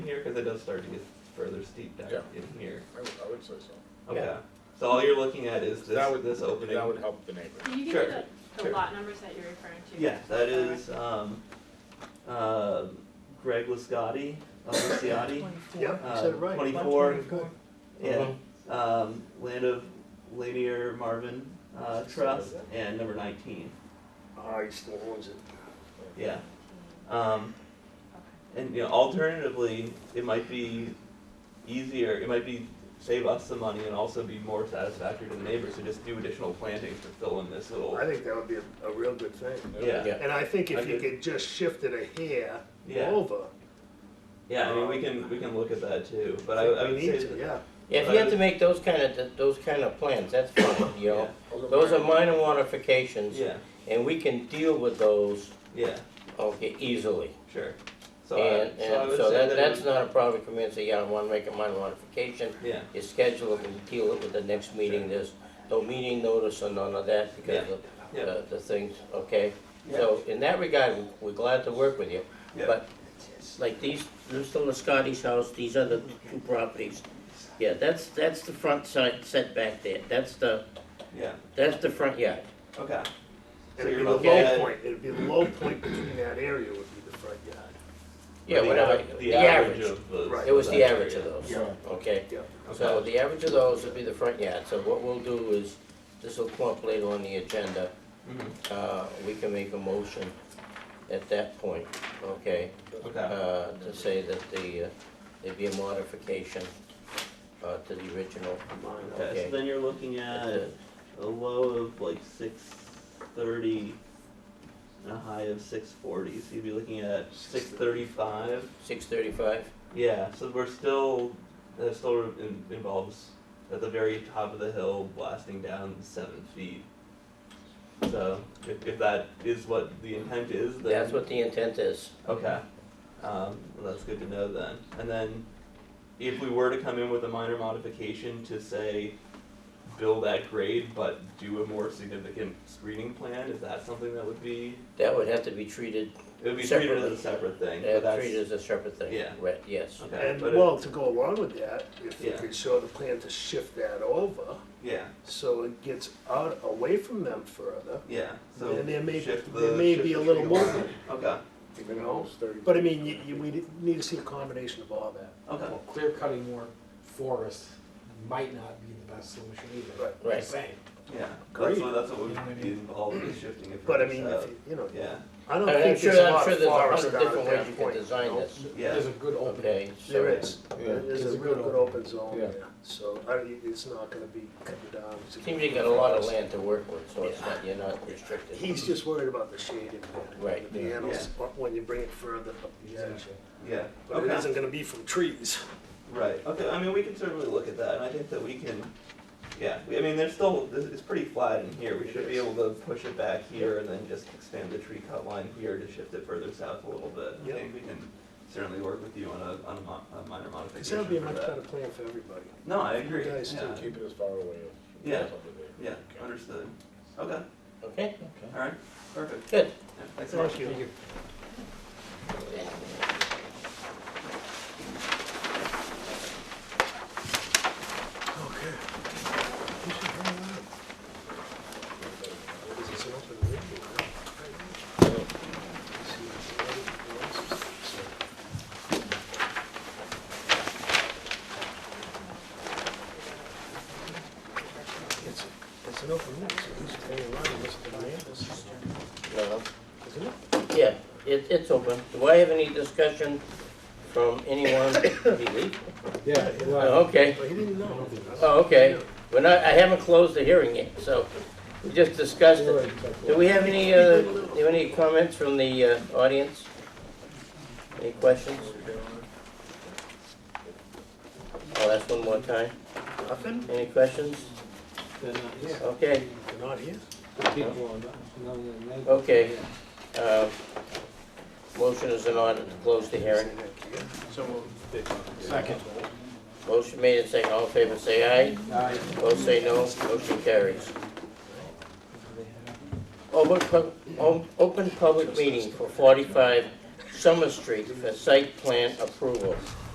here? Because it does start to get further steep down Yeah. in here. I would, I would say so. Okay. Yeah. So all you're looking at is this, That would- this opening. That would help the neighbor. Can you give Sure, me the, the sure. lot numbers that you're referring to? Yeah, that is um, uh, Greg Liscotti of Liscotti. Yep. Uh, you said it right. 24. 124. Yeah. Uh-huh. Um, land of Lanier Marvin uh, Trust and number 19. Ah, he still owns it. Yeah. Uh, Um, and you know, alternatively, it might be easier. It might be save us some money and also be more satisfactory to the neighbors to just do additional plantings to fill in this little. I think that would be a, a real good thing. Yeah. Yeah. And I think I if you did. could just shift it a hair Yeah. over. Yeah, I mean, we can we can look at that too. But I, think I we would need say to, that, Yeah, Yeah, if you have to make those kind of, those kind of plans, that's fine, you know? Those are Those are minor- minor modifications, yeah, and we can deal with those, yeah, okay, easily. sure. So And, I, so I and would so say that, that that's it, not a problem, come in and say, yeah, I wanna make a minor modification. Yeah, You schedule it and deal it with the next meeting, Sure. there's no meeting notice or none of that because of Yeah. the, the things, okay? Yeah. So in that regard, we're glad to work with you. Yeah. But like these, Mr. Lascotti's house, these other two properties, yeah, that's, that's the front side setback there. That's the, yeah. that's the front yard. Okay. So it'd you're be the looking low at- point, it'd be the low point between that area would be the front yard. Yeah, the whatever, a- the average. of the. Right. It was of the that average of area. those, Yeah. okay? Okay. So the average of those would be the front yard. So what we'll do is, this will come up later on the agenda. Mhm. Uh, we can make a motion at that point, okay? Okay. Uh, to say that the, uh, there'd be a modification, uh, to the original. Okay. okay. So then you're looking at a low of like six thirty and a high of six forty. So you'd be looking at six thirty five. Six thirty-five? Yeah. So we're still that still in, involves at the very top of the hill blasting down seven feet. So if, if that is what the intent is, then That's what the intent is. Okay, um, well, that's good to know then. And then, if we were to come in with a minor modification to say, build that grade, but do a more significant screening plan, is that something that would be, That would have to be treated, it would be treated as a separate Separately. thing, but uh, that's, treated as a separate thing. Yeah. Right, yes. okay, And but well, it, to go along with that, if you Yeah. could show the plan to shift that over, yeah, so it gets out, away from them further, yeah, so And there may- shift there the- may shift be the a little tree line. movement. Okay, you know? Minimum's thirty. But I mean, you, you, we need to see a combination of all that. okay, Clear cutting more forest might not be the best solution either. Right. Right. Just saying. yeah, that's Great. what, that's what would be involved in shifting it from But I the mean, south. if, you you know, Yeah, I don't And I'm think sure, there's a I'm lot sure of there's a forest hundred down at different ways you that could point. design know? this, yeah, There's a good opening. okay? so- There is, Yeah. there's It's a a good real good open. open zone Yeah. there, so I, it's not gonna be cut down. It's a Seems good you got a lot of forest. land to work with, so it's not, you're not restricted. He's just worried about the shade impact. Right. The animals, when you bring it further up the edge. Exactly. yeah, But it Okay. isn't gonna be from trees. Right. Okay. I mean, we can certainly look at that, and I think that we can. Yeah. We, I mean, there's still this- it's pretty flat in here. We should be able to push it back here, and then just expand the tree cut line here to shift it further south a little bit. I Yep. think we can certainly work with you on a on a, mo- a minor Because modification. that would be a for much that. better plan for everybody. No, I agree. You guys yeah. Keep it as far away as. Yeah. possible there. yeah. Understood. Okay. Okay, All right. Perfect. good. Yeah, thanks so much. you. It's, it's an open road, so who's paying money, Mr. Hernandez? No, Isn't it? Yeah, it, it's open. Do I have any discussion from anyone? Did he leave? Yeah, well, Oh, Okay, But he didn't know. oh, okay. We're not, I haven't closed the hearing yet, so we just discussed you're it. right, but- Do we have any, uh, do you have any comments from the, uh, audience? Any questions? I'll ask one more time. Nothing? Any questions? They're not here. Okay, They're not here? uh, People are not- no, no, no. okay. Um, motion is in order to close the hearing. Second. Motion made and second. All in favor, say aye. Aye. Opposed, say no. Motion carries. Open, pub- o- open public meeting for forty-five Summer Street for site plan approval.